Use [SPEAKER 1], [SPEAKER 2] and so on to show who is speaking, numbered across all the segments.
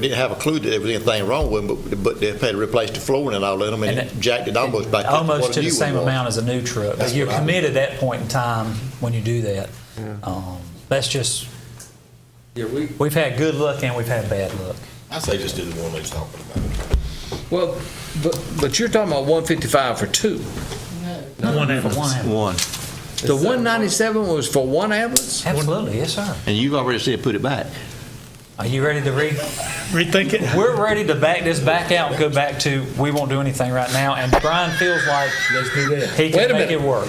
[SPEAKER 1] Didn't have a clue that there was anything wrong with them, but, but they had to replace the flooring and all in them, and it jacked it almost back up to
[SPEAKER 2] Almost
[SPEAKER 1] what
[SPEAKER 2] to
[SPEAKER 1] a
[SPEAKER 2] the
[SPEAKER 1] new
[SPEAKER 2] same
[SPEAKER 1] one was.
[SPEAKER 2] amount as a new truck,
[SPEAKER 1] That's
[SPEAKER 2] but you're
[SPEAKER 1] what I mean.
[SPEAKER 2] committed at that point in time when you do that. Um, That's just,
[SPEAKER 3] Yeah, we,
[SPEAKER 2] we've had good luck and we've had bad luck.
[SPEAKER 4] I say just do the one they was talking about.
[SPEAKER 3] well, but, but you're talking about one fifty-five for two.
[SPEAKER 2] One ambulance.
[SPEAKER 5] One.
[SPEAKER 3] The one ninety-seven was for one ambulance?
[SPEAKER 2] Absolutely, yes, sir.
[SPEAKER 5] And you've already said put it back.
[SPEAKER 2] Are you ready to read?
[SPEAKER 6] Rethink it.
[SPEAKER 2] We're ready to back this back out and go back to, we won't do anything right now, and Brian feels like he
[SPEAKER 3] Wait
[SPEAKER 2] can
[SPEAKER 3] a
[SPEAKER 2] make
[SPEAKER 3] minute.
[SPEAKER 2] it work.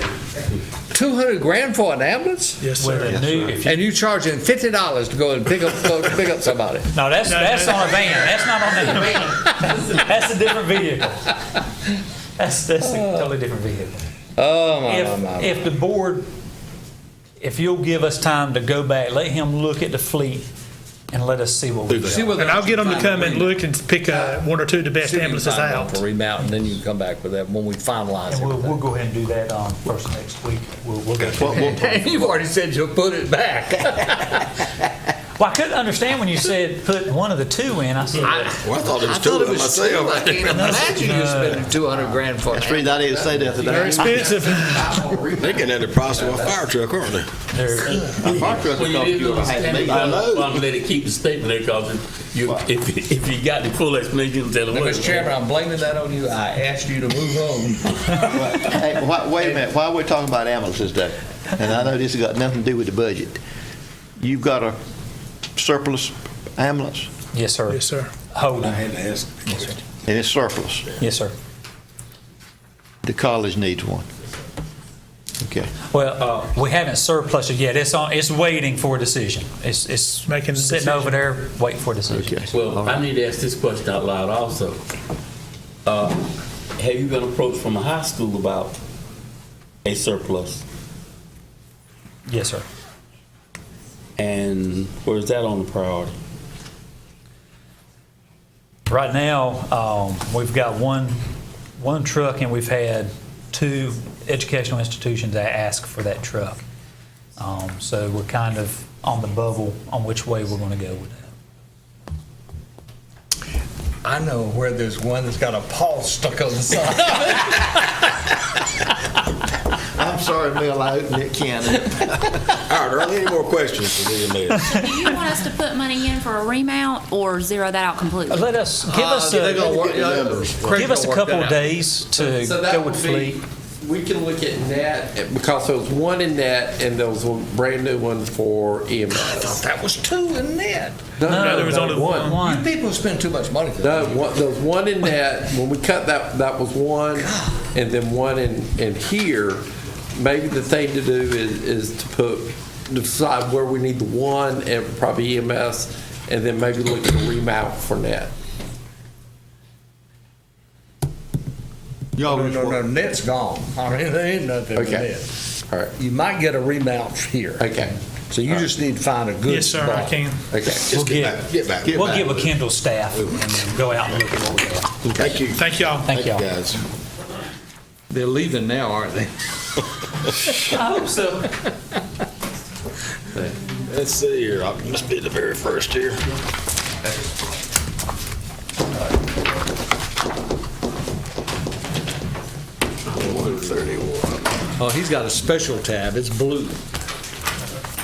[SPEAKER 3] Two hundred grand for an ambulance?
[SPEAKER 6] Yes,
[SPEAKER 2] With
[SPEAKER 6] sir.
[SPEAKER 2] a new, if you,
[SPEAKER 3] And you charging fifty dollars to go and pick up, go pick up somebody?
[SPEAKER 2] no, that's,
[SPEAKER 6] No,
[SPEAKER 2] that's
[SPEAKER 6] no.
[SPEAKER 2] on a van, that's not on that van. That's a different vehicle. That's, that's
[SPEAKER 6] Uh.
[SPEAKER 2] a totally different vehicle.
[SPEAKER 3] Oh, my, my, my.
[SPEAKER 2] If, if the board, if you'll give us time to go back, let him look at the fleet and let us see what we
[SPEAKER 3] See
[SPEAKER 2] got.
[SPEAKER 3] whether-
[SPEAKER 6] And I'll get them to
[SPEAKER 3] Find a
[SPEAKER 6] come and
[SPEAKER 3] remount.
[SPEAKER 6] look and pick uh, one or two of the best
[SPEAKER 3] See if you
[SPEAKER 6] ambulances
[SPEAKER 3] find one
[SPEAKER 6] out.
[SPEAKER 3] For remount, and then you can come back with that when we finalize
[SPEAKER 2] And we'll,
[SPEAKER 3] everything.
[SPEAKER 2] we'll go ahead and do that, um, first next week. We'll, we'll go.
[SPEAKER 1] What- what-
[SPEAKER 3] You've already said you'll put it back.
[SPEAKER 2] Well, I couldn't understand when you said put one of the two in. I said,
[SPEAKER 4] Well, I thought it was
[SPEAKER 3] I
[SPEAKER 4] two
[SPEAKER 3] thought
[SPEAKER 4] of
[SPEAKER 3] it
[SPEAKER 4] them
[SPEAKER 3] was two. I
[SPEAKER 4] myself.
[SPEAKER 3] can't imagine you spending two hundred grand for
[SPEAKER 5] That's the reason I didn't say that today.
[SPEAKER 6] They're expensive.
[SPEAKER 4] They getting at the price of a fire truck, aren't they?
[SPEAKER 2] there-
[SPEAKER 5] A fire truck
[SPEAKER 7] Well,
[SPEAKER 5] would cost you
[SPEAKER 7] you didn't
[SPEAKER 5] a half
[SPEAKER 7] understand
[SPEAKER 5] million.
[SPEAKER 7] it.
[SPEAKER 5] I
[SPEAKER 7] Well,
[SPEAKER 5] know.
[SPEAKER 7] I'm gonna let it keep the statement there, cause if you, if, if you got the full explanation, tell them what.
[SPEAKER 3] Mr. Chairman, I'm blaming that on you. I asked you to move on.
[SPEAKER 5] Hey, why- wait a minute, while we're talking about ambulances though, and I know this has got nothing to do with the budget, you've got a surplus ambulance,
[SPEAKER 2] yes, sir.
[SPEAKER 6] Yes, sir.
[SPEAKER 2] Hold on.
[SPEAKER 4] had to ask.
[SPEAKER 5] and it's surplus.
[SPEAKER 2] Yes, sir.
[SPEAKER 5] The college needs one. Okay.
[SPEAKER 2] Well, uh, we haven't surplus it yet. It's on, it's waiting for a decision. It's, it's
[SPEAKER 6] Making a
[SPEAKER 2] sitting over there, waiting for a decision.
[SPEAKER 5] Okay.
[SPEAKER 7] Well, I need to ask this question out loud also. Uh, Have you been approached from a high school about a surplus?
[SPEAKER 2] Yes, sir.
[SPEAKER 7] And where is that on the priority?
[SPEAKER 2] Right now, um, we've got one, one truck and we've had two educational institutions that ask for that truck. Um, so we're kind of on the bubble on which way we're gonna go with that.
[SPEAKER 3] I know where there's one that's got a paw stuck on the side.
[SPEAKER 5] I'm sorry, Mel, I opened that can.
[SPEAKER 4] All right, are there any more questions for William Mayor?
[SPEAKER 8] Do you want us to put money in for a remount or zero that out completely?
[SPEAKER 2] Let us, give
[SPEAKER 3] Uh,
[SPEAKER 2] us a, give us a couple of days to
[SPEAKER 9] So
[SPEAKER 2] go
[SPEAKER 9] that would
[SPEAKER 2] with
[SPEAKER 9] be,
[SPEAKER 2] fleet.
[SPEAKER 9] we can look at net, because there was one in net and there was a brand new one for E EMS.
[SPEAKER 3] That was two in net.
[SPEAKER 6] No, there was only one.
[SPEAKER 3] You people spend too much money for
[SPEAKER 9] No,
[SPEAKER 3] that.
[SPEAKER 9] one- there was one in net, when we cut that, that was one, and then one in, in here. Maybe the thing to do is, is to put, decide where we need the one and probably EMS, and then maybe look at a remount for net.
[SPEAKER 3] No, no, no, net's gone. I mean, there ain't nothing in
[SPEAKER 9] Okay.
[SPEAKER 3] net.
[SPEAKER 9] All right,
[SPEAKER 3] You might get a remount here.
[SPEAKER 9] okay,
[SPEAKER 3] So you just need to find a good
[SPEAKER 6] Yes, sir, I
[SPEAKER 3] spot.
[SPEAKER 6] can.
[SPEAKER 9] okay.
[SPEAKER 2] We'll
[SPEAKER 4] get
[SPEAKER 2] give,
[SPEAKER 4] back- get back- get
[SPEAKER 2] we'll
[SPEAKER 4] back
[SPEAKER 2] give a
[SPEAKER 4] with it.
[SPEAKER 2] Kendall staff and go out and look at what we have.
[SPEAKER 4] Thank you.
[SPEAKER 6] Thank y'all.
[SPEAKER 2] Thank y'all.
[SPEAKER 4] Guys.
[SPEAKER 3] They're leaving now, aren't they?
[SPEAKER 4] Let's see here, I must be the very first here. One thirty-one.
[SPEAKER 3] Oh, he's got a special tab. It's blue.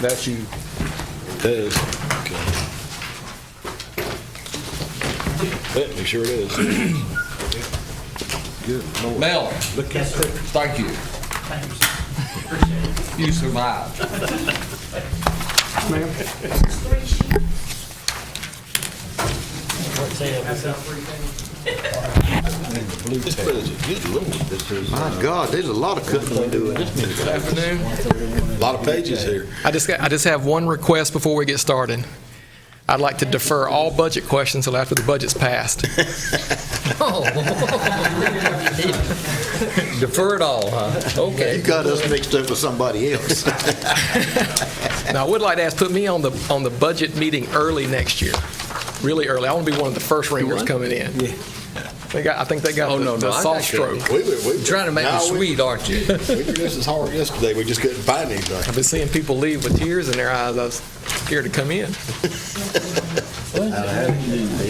[SPEAKER 3] That's you.
[SPEAKER 4] It is. Okay. Yep, it sure it is. Good lord.
[SPEAKER 3] Mel, thank you. You survived.
[SPEAKER 4] This president, good lord, this is a
[SPEAKER 5] My God, there's a lot of cooking we do in this meeting.
[SPEAKER 9] Afternoon.
[SPEAKER 4] lot of pages here.
[SPEAKER 10] I just, got- I just have one request before we get started. I'd like to defer all budget questions until after the budget's passed.
[SPEAKER 3] Oh. Defer it all, huh?
[SPEAKER 5] You
[SPEAKER 3] Okay.
[SPEAKER 5] got us mixed up with somebody else.
[SPEAKER 10] Now, I would like to ask, put me on the, on the budget meeting early next year, really early. I want to be one of the first ringers coming in. They got, I think they got
[SPEAKER 3] Oh, no,
[SPEAKER 10] the- the
[SPEAKER 3] no, I
[SPEAKER 10] soft
[SPEAKER 3] got you.
[SPEAKER 10] stroke.
[SPEAKER 4] We were, we were.
[SPEAKER 3] Trying to make
[SPEAKER 4] No,
[SPEAKER 3] it
[SPEAKER 4] we-
[SPEAKER 3] sweet, aren't you?
[SPEAKER 4] We were just as hard yesterday, we just couldn't find anything.
[SPEAKER 10] I've been seeing people leave with tears in their eyes. I was scared to come in.